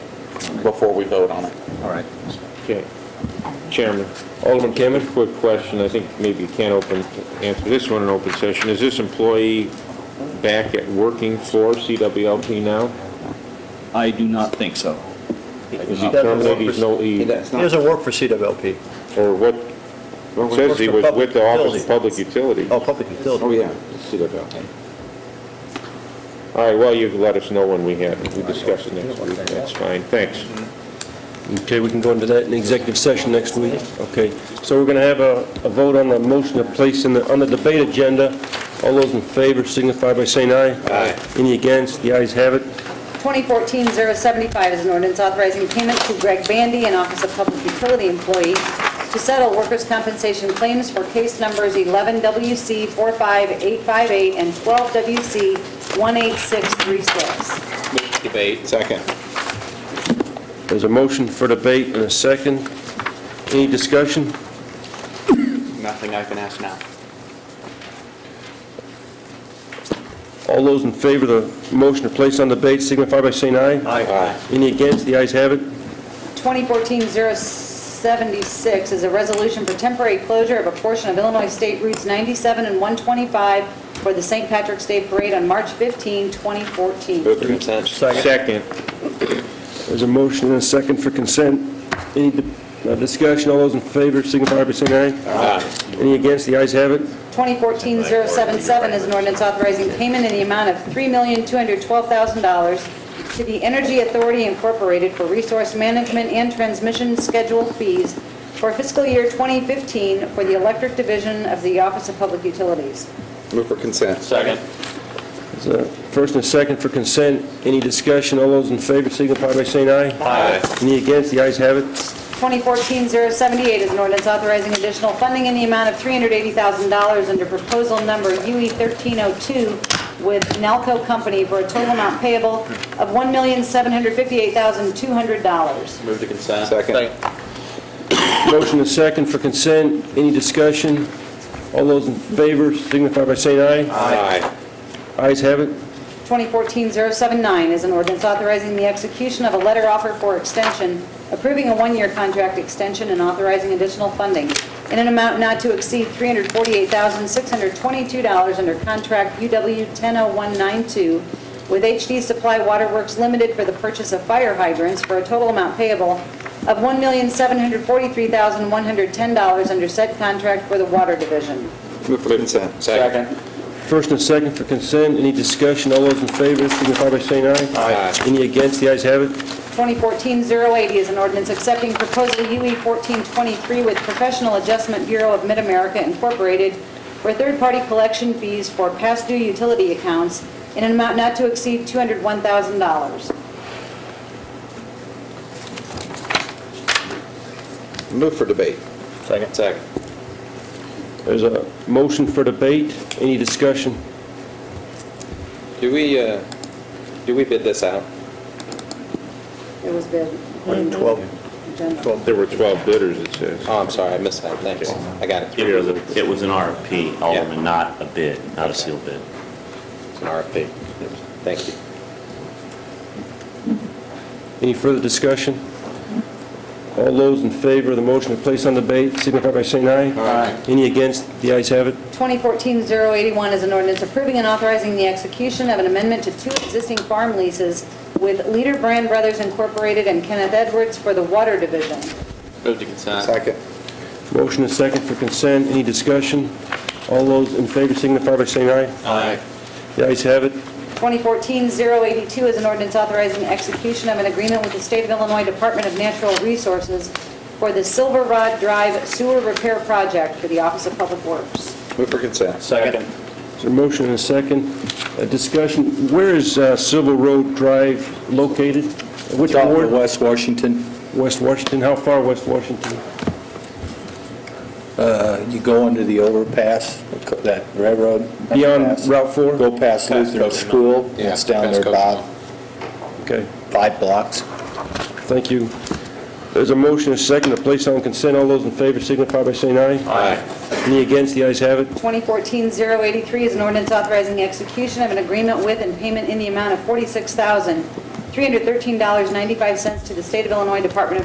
before we vote on it. All right. Okay. Chairman, Alderman Cameron, quick question, I think maybe you can't open, answer this one in open session. Is this employee back at working for CWLP now? I do not think so. Is he terminated, he's no, he, He doesn't work for CWLP. or what, it says he was with the Office of Public Utility. Oh, public utility. yeah. CWLP. All right, well, you can let us know when we have, we discuss it next week, that's fine, thanks. Okay, we can go into that in executive session next week. Okay, so we're going to have a, a vote on the motion to place in the, on the debate agenda. All those in favor signify by saying aye. Aye. Any against? The ayes have it. 2014-075 is an ordinance authorizing payment to Greg Bandy, an Office of Public Utility employee, to settle workers' compensation claims for case numbers 11WC45858 and 12WC18636. Debate. Second. There's a motion for debate and a second. Any discussion? Nothing I can ask now. All those in favor of the motion to place on debate signify by saying aye. Aye. Any against? The ayes have it. 2014-076 is a resolution for temporary closure of a portion of Illinois State Routes 97 and 125 for the St. Patrick's Day Parade on March 15, 2014. Move for consent. Second, There's a motion and a second for consent. Any di- uh, discussion? All those in favor signify by saying aye. Aye. Any against? The ayes have it. 2014-077 is an ordinance authorizing payment in the amount of $3,212,000 to the Energy Authority Incorporated for resource management and transmission schedule fees for fiscal year 2015 for the Electric Division of the Office of Public Utilities. Move for consent. Second. There's a first and a second for consent. Any discussion? All those in favor signify by saying aye. Aye. Any against? The ayes have it. 2014-078 is an ordinance authorizing additional funding in the amount of $380,000 under proposal number E UE1302 with Nalco Company for a total amount payable of $1,758,200. Move to consent. Second. Motion and second for consent. Any discussion? All those in favor signify by saying aye. Aye. Ayes have it. 2014-079 is an ordinance authorizing the execution of a letter offer for extension, approving a one-year contract extension and authorizing additional funding in an amount not to exceed $348,622 under contract UW 100192 with HD Supply Waterworks Limited for the purchase of fire hydrants for a total amount payable of $1,743,110 under said contract for the Water Division. Move for consent. Second. First and second for consent. Any discussion? All those in favor signify by saying aye. Aye. Any against? The ayes have it. 2014-080 is an ordinance accepting proposal UE1423 with Professional Adjustment Bureau of Mid-America Incorporated for third-party collection fees for past due utility accounts in an amount not to exceed $201,000. Move for debate. Second. Second. There's a motion for debate. Any discussion? Do we, uh, do we bid this out? It was bid. Item 12. Agenda. 12. there were 12 bidders, it says. Oh, I'm sorry, I missed that. Thanks. I got it. It was a- it was an RFP, Alderman, not a bid, not a sealed bid. It's an RFP. Thank you. Any further discussion? All those in favor of the motion to place on debate signify by saying aye. Aye. Any against? The ayes have it. 2014-081 is an ordinance approving and authorizing the execution of an amendment to two existing farm leases with Leader Brand Brothers Incorporated and Kenneth Edwards for the Water Division. Move to consent. Second. Motion is second for consent. Any discussion? All those in favor signify by saying aye. Aye. The ayes have it. 2014-082 is an ordinance authorizing execution of an agreement with the State of Illinois Department of Natural Resources for the Silver Rod Drive Sewer Repair Project for the Office of Public Works. Move for consent. Second. There's a motion and a second. A discussion. Where is uh, Civil Road Drive located? Which ward? West Washington, West Washington. How far west Washington? uh, you go under the overpass, that railroad. Beyond overpass, Route 4? Go past Lutheran School, Yeah, it's down there past about Okay. five blocks. Thank you. There's a motion, a second, to place on consent. All those in favor signify by saying aye. Aye. Any against? The ayes have it. 2014-083 is an ordinance authorizing execution of an agreement with and payment in the amount of $46,000 $313.95 to the State of Illinois Department of